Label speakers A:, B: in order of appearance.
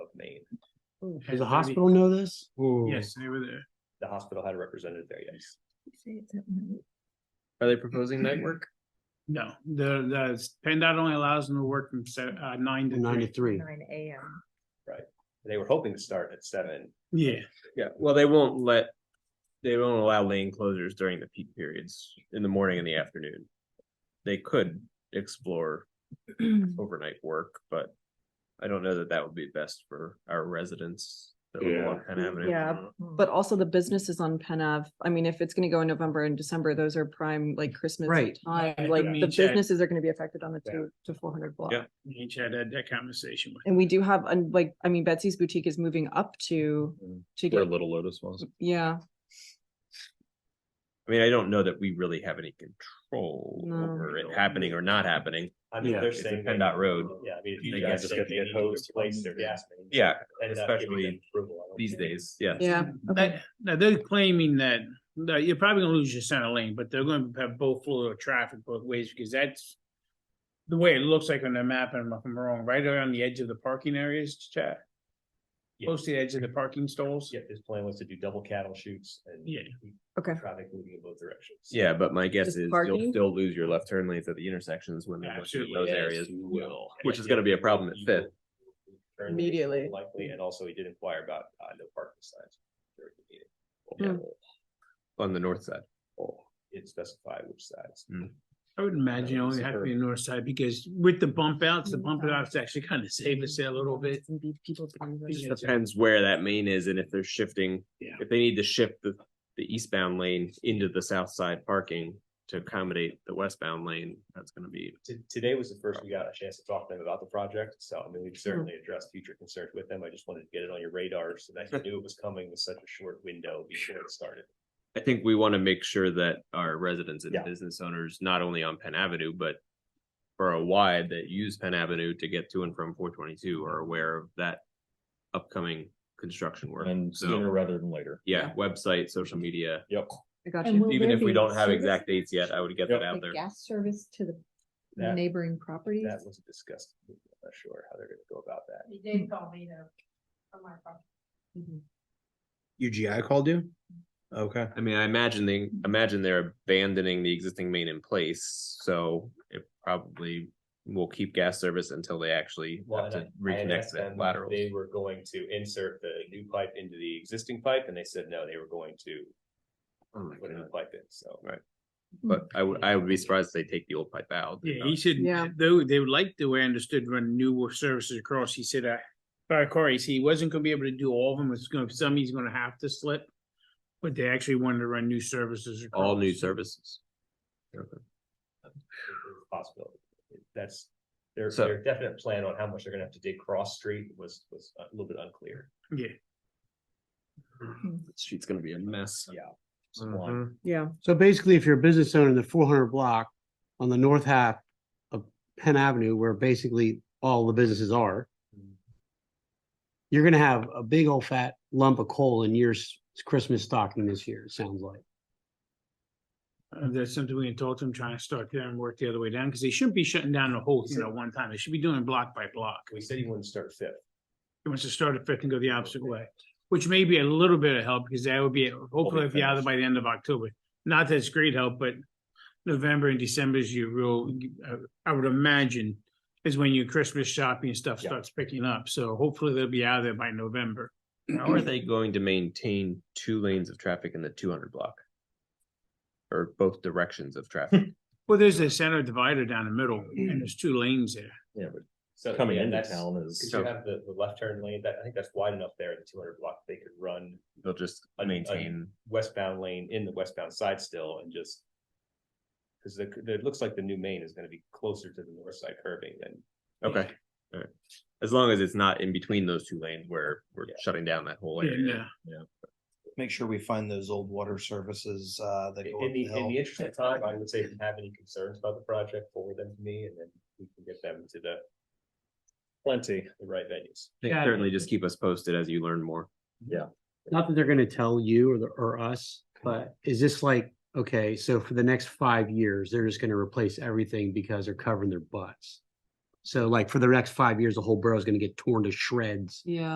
A: Does the hospital know this?
B: Yes, they were there.
C: The hospital had a representative there, yes.
D: Are they proposing night work?
B: No, the, the, PennDOT only allows them to work from se- uh, nine to
A: Ninety
B: three.
A: three.
E: Nine AM.
C: They were hoping to start at seven.
B: Yeah,
D: Yeah, well, they won't let, they won't allow lane closures during the peak periods in the morning and the afternoon. They could explore overnight work, but I don't know that that would be best for our residents. that live along Penn Avenue.
F: Yeah, But also the businesses on Penn Ave, I mean, if it's gonna go in November and December, those are prime like Christmas
A: Right.
F: time,
B: Yeah,
F: like
B: I mean,
F: the
B: check.
F: businesses are gonna be affected on the
C: Yeah.
F: two to four hundred block.
D: Yeah.
B: each had that, that conversation with.
F: And we do have, and like, I mean, Betsy's Boutique is moving up to, to
G: Mm. Where
F: get,
G: Little Lotus was.
F: yeah,
D: I mean, I don't know that we really have any control
F: No.
D: over it happening or not happening.
C: I mean,
A: Yeah,
C: they're
D: it's a
C: saying.
D: PennDOT
C: that-
D: road.
C: Yeah, I mean, if
D: They
C: you
D: gotta
C: guys
D: just
C: say
D: get
C: they
D: the
C: need
D: hose
C: to place their gas mains.
D: Yeah,
C: PennDOT giving them
D: especially
C: approval, I don't
D: these
C: think.
D: days, yeah.
F: yeah. okay.
B: That, now they're claiming that, that you're probably gonna lose your center lane, but they're gonna have both flow of traffic both ways, because that's. The way it looks like on the map, and if I'm wrong, right around the edge of the parking areas, Chad?
C: Yeah.
B: Close to the edge of the parking stalls?
C: Yeah, his plan was to do double cattle shoots and.
B: Yeah.
C: keep
F: Okay.
C: Traffic moving in both directions.
D: Yeah, but my guess
F: Just
D: is you'll
F: parking?
D: still lose your left turn lanes at the intersections when they're looking at
B: Absolutely,
D: those
C: Yes,
D: areas.
C: you will.
D: which is gonna be a problem at Fifth.
C: Turn lanes
F: Immediately.
C: Likely, and also he did inquire about, uh, no parking signs. during the meeting.
D: Yeah. On the north side.
C: Oh, It specified which sides.
D: Mm.
B: I would imagine it only have to be north side, because with the bump outs, the bump outs actually kind of save us there a little bit.
F: And be people pleasers.
D: It just depends where that main is and if they're shifting,
B: Yeah.
D: if they need to shift the, the eastbound lane into the south side parking to accommodate the westbound lane, that's gonna be.
C: to- today was the first we got a chance to talk to them about the project, so I mean, we've certainly addressed future concerns with them. I just wanted to get it on your radar so that you knew it was coming with such a short window before it started.
D: I think we wanna make sure that our residents and
C: Yeah.
D: business owners, not only on Penn Avenue, but borough-wide that use Penn Avenue to get to and from four twenty-two are aware of that upcoming construction work.
G: And
D: So-
G: sooner rather than later.
D: Yeah, website, social media,
G: Yep.
F: I got
E: And
F: you.
E: Will
D: even
E: there
D: if we
E: be
D: don't have
E: service?
D: exact dates yet, I would get that out
E: Like
D: there.
E: gas service to the
C: That-
E: neighboring properties?
C: That was discussed. I'm not sure how they're gonna go about that.
H: He did call me though. From my phone.
F: Mhm.
I: UGI called you? Okay.
D: I mean, I imagine they imagine they're abandoning the existing main in place, so it probably will keep gas service until they actually
C: Well,
D: have
C: and I-
D: to
C: I had
D: reconnect
C: asked
D: that
C: them
D: lateral.
C: if They were going to insert the new pipe into the existing pipe, and they said no, they were going to put a new pipe in, so.
D: Oh Right. But I would I would be surprised if they take the old pipe out.
B: Yeah, he said,
F: Yeah.
B: though, they would like the way I understood when new services across, he said, uh, by Corey, he wasn't gonna be able to do all of them, it's gonna, some he's gonna have to slip. But they actually wanted to run new services.
D: All
B: across.
D: new services.
C: possibility. That's, their,
D: So-
C: their definite plan on how much they're gonna have to dig cross street was, was a little bit unclear.
B: Yeah,
D: The Street's gonna be a mess.
C: Yeah. Swan.
D: Mm-hmm.
F: Yeah,
A: So basically, if you're a business owner in the four hundred block on the north half of Penn Avenue, where basically all the businesses are. You're gonna have a big old fat lump of coal in your s- Christmas stocking this year, it sounds like.
B: Uh, that's something we can talk to them, trying to start there and work the other way down, because they shouldn't be shutting down the whole thing at one time, they should be doing block by block.
C: We said he wouldn't start fifth.
B: He wants to start at fifth and go the opposite way, which may be a little bit of help, because that would be, hopefully, if you're out
C: finished.
B: by the end of October. Not that it's great help, but November and December is your real, uh, I would imagine, is when your Christmas shopping and stuff
C: Yeah.
B: starts picking up, so hopefully they'll be out of there by November.
D: How are they going to maintain two lanes of traffic in the two hundred block? Or both directions of traffic?
B: Well, there's a center divider down the middle, and there's two lanes there.
G: Yeah,
C: So
G: but coming
C: yeah,
G: into
C: that's-
G: town
C: Cause
G: is.
C: you have the, the left turn lane, that, I think that's wide enough there in the two hundred block, they could run
D: They'll just
C: Un- un-
D: maintain.
C: westbound lane in the westbound side still and just. Cause the, the- it looks like the new main is gonna be closer to the north side curving than
D: Okay. Alright. As long as it's not in between those two lanes where we're
C: Yeah.
D: shutting down that whole area.
B: Yeah,
I: Make sure we find those old water services, uh, that go up
C: In the, in
I: the
C: the
I: hill.
C: interest of time, I would say if you have any concerns about the project, forward them to me and then we can get them to the. Plenty, the right venues.
D: I think
B: Got it.
D: Certainly just keep us posted as you learn more.
A: Not that they're gonna tell you or the, or us, but is this like, okay, so for the next five years, they're just gonna replace everything because they're covering their butts? So like for the next five years, the whole borough is gonna get torn to shreds
F: yeah.